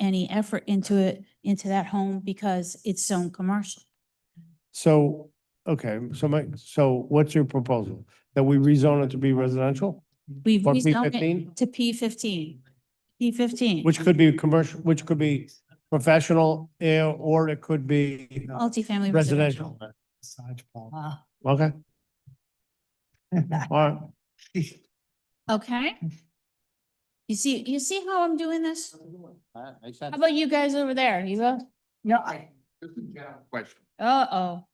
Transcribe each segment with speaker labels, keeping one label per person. Speaker 1: any effort into it, into that home because it's zone commercial.
Speaker 2: So, okay, so my, so what's your proposal? That we rezone it to be residential?
Speaker 1: We've
Speaker 2: For
Speaker 1: rezoned
Speaker 2: P15?
Speaker 1: it to P fifteen. P fifteen.
Speaker 2: Which could be commercial, which could be professional, eh, or it could be
Speaker 1: Multifamily residential.
Speaker 2: uh, residential.
Speaker 3: Massage parlor.
Speaker 4: Wow.
Speaker 2: Okay, all right.
Speaker 1: Okay? You see, you see how I'm doing this? How
Speaker 2: How
Speaker 1: about you guys over there, Eva?
Speaker 4: No,
Speaker 5: I- This is a general question.
Speaker 1: Uh-oh.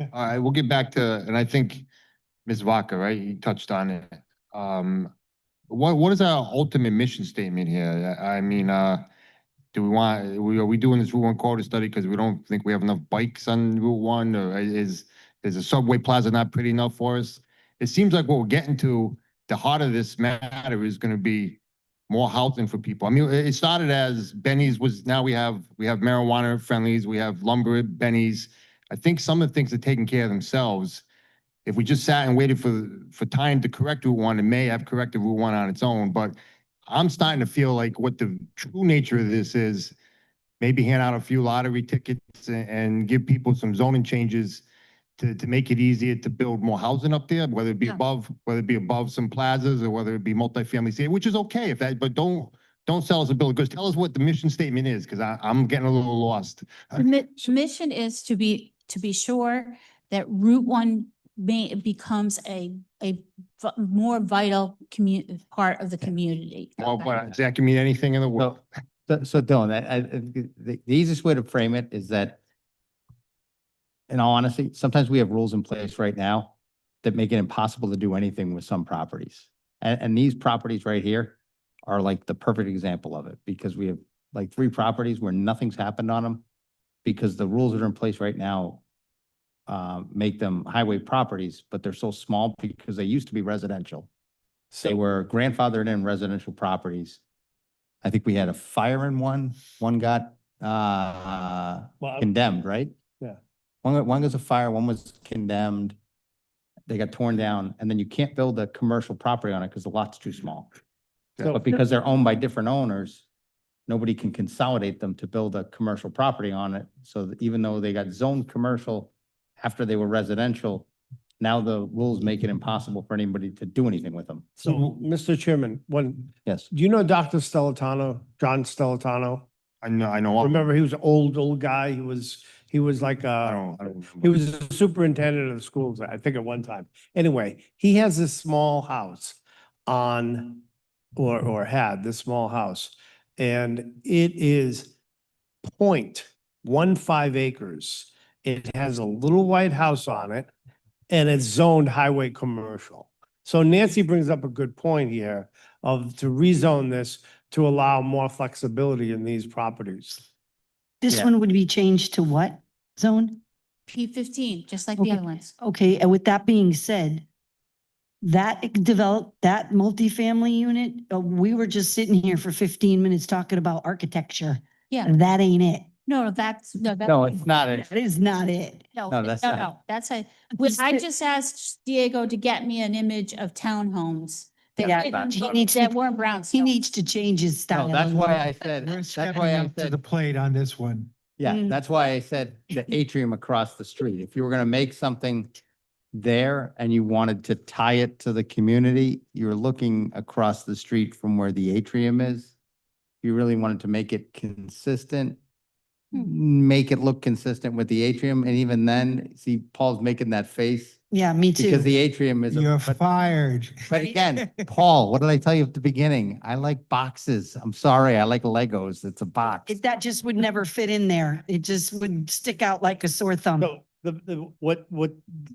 Speaker 5: All right, we'll get back to, and I think Ms. Vaca, right, you touched on it. Um, what, what is our ultimate mission statement here? I I mean, uh, do we want, we, are we doing this Route One corridor study because we don't think we have enough bikes on Route One? Or is, is the subway plaza not pretty enough for us? It seems like what we're getting to, the heart of this matter is gonna be more housing for people. I mean, it it started as Benny's was, now we have, we have marijuana friendlies, we have lumber, Benny's. I think some of the things are taking care of themselves. If we just sat and waited for, for time to correct Route One, it may have corrected Route One on its own, but I'm starting to feel like what the true nature of this is, maybe hand out a few lottery tickets and, and give people some zoning changes to, to make it easier to build more housing up there, whether it be
Speaker 1: Yeah.
Speaker 5: above, whether it be above some plazas or whether it be multifamily, say, which is okay if that, but don't, don't sell us a bill of goods. Tell us what the mission statement is, because I, I'm getting a little lost.
Speaker 1: The mi- mission is to be, to be sure that Route One may, becomes a, a v- more vital commu, part of the community.
Speaker 5: Well, but that can mean anything in the world.
Speaker 6: So, so- so Dylan, I, I, the, the easiest way to frame it is that in all honesty, sometimes we have rules in place right now that make it impossible to do anything with some properties. And, and these properties right here are like the perfect example of it because we have like three properties where nothing's happened on them because the rules that are in place right now uh, make them highway properties, but they're so small because they used to be residential. They were grandfathered in residential properties. I think we had a fire in one, one got uh
Speaker 2: Well,
Speaker 6: condemned, right?
Speaker 2: Yeah.
Speaker 6: One, got- one was a fire, one was condemned. They got torn down and then you can't build a commercial property on it because the lot's too small.
Speaker 2: so-
Speaker 6: But because they're owned by different owners, nobody can consolidate them to build a commercial property on it. So that even though they got zoned commercial after they were residential, now the rules make it impossible for anybody to do anything with them.
Speaker 2: So, Mr. Chairman, when,
Speaker 6: Yes.
Speaker 2: do you know Dr. Stelatano, John Stelatano?
Speaker 5: I know, I know.
Speaker 2: Remember, he was an old, old guy. He was, he was like,
Speaker 5: I
Speaker 2: uh,
Speaker 5: don't, I don't.
Speaker 2: he was the superintendent of schools, I think at one time. Anyway, he has this small house on, or, or had this small house. And it is point one five acres. It has a little white house on it and it's zoned highway commercial. So Nancy brings up a good point here of to rezone this to allow more flexibility in these properties.
Speaker 4: This
Speaker 6: Yeah.
Speaker 4: one would be changed to what zone?
Speaker 1: P fifteen, just like the other ones.
Speaker 4: Okay, and with that being said, that ex- develop, that multifamily unit, uh, we were just sitting here for fifteen minutes talking about architecture.
Speaker 1: Yeah.
Speaker 4: And That ain't it.
Speaker 1: No, that's, no, that's.
Speaker 6: No, it's not.
Speaker 4: That is not it.
Speaker 1: No,
Speaker 6: No,
Speaker 1: no,
Speaker 6: that's not-
Speaker 1: no, that's a, which I
Speaker 4: Just-
Speaker 1: just asked Diego to get me an image of townhomes. that
Speaker 4: Yeah,
Speaker 1: didn't-
Speaker 4: he needs to-
Speaker 1: That weren't brownstone.
Speaker 4: He needs to change his style.
Speaker 6: No, that's
Speaker 4: of
Speaker 6: why
Speaker 4: living.
Speaker 6: I said,
Speaker 3: We're
Speaker 6: that's
Speaker 3: stepping
Speaker 6: why I
Speaker 3: up to the
Speaker 6: said,
Speaker 3: plate on this one.
Speaker 6: yeah,
Speaker 4: Mm.
Speaker 6: that's why I said the atrium across the street. If you were gonna make something there and you wanted to tie it to the community, you're looking across the street from where the atrium is. You really wanted to make it consistent, make it look consistent with the atrium. And even then, see, Paul's making that face
Speaker 4: Yeah, me
Speaker 6: because
Speaker 4: too.
Speaker 6: the atrium is. a-
Speaker 3: You're
Speaker 6: but-
Speaker 3: fired.
Speaker 6: But again, Paul, what did I tell you at the beginning? I like boxes. I'm sorry. I like Legos. It's a box.
Speaker 4: It- That just would never fit in there. It just would stick out like a sore thumb.
Speaker 2: So the, the, what, what,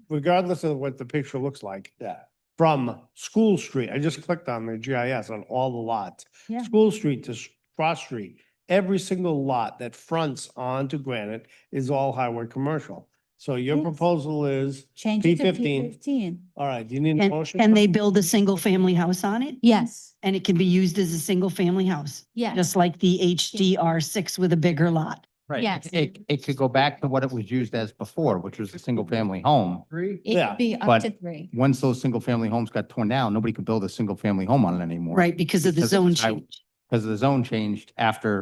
Speaker 2: regardless of what the picture looks like. Yeah. From School Street, I just clicked on the GIS on all the lots.
Speaker 4: Yeah.
Speaker 2: School Street to S- Cross Street, every single lot that fronts onto Granite is all highway commercial. So your
Speaker 1: Yes.
Speaker 2: proposal is,
Speaker 1: Change it to P
Speaker 2: P15.
Speaker 1: fifteen.
Speaker 2: all right, do you need a
Speaker 4: And
Speaker 2: motion?
Speaker 4: can they build a single family house on it?
Speaker 1: Yes,
Speaker 4: And it can be used as a single family house,
Speaker 1: yes,
Speaker 4: just like the HDR six with a bigger lot.
Speaker 6: Right.
Speaker 1: Yes.
Speaker 6: It, it could go back to what it was used as before, which was a single family home.
Speaker 3: Three.
Speaker 1: it
Speaker 2: yeah,
Speaker 1: could be up
Speaker 6: but-
Speaker 1: to three.
Speaker 6: Once those single family homes got torn down, nobody could build a single family home on it anymore.
Speaker 4: Right, because of the
Speaker 6: Because of
Speaker 4: zone
Speaker 6: the high-
Speaker 4: change.
Speaker 6: Because the zone changed after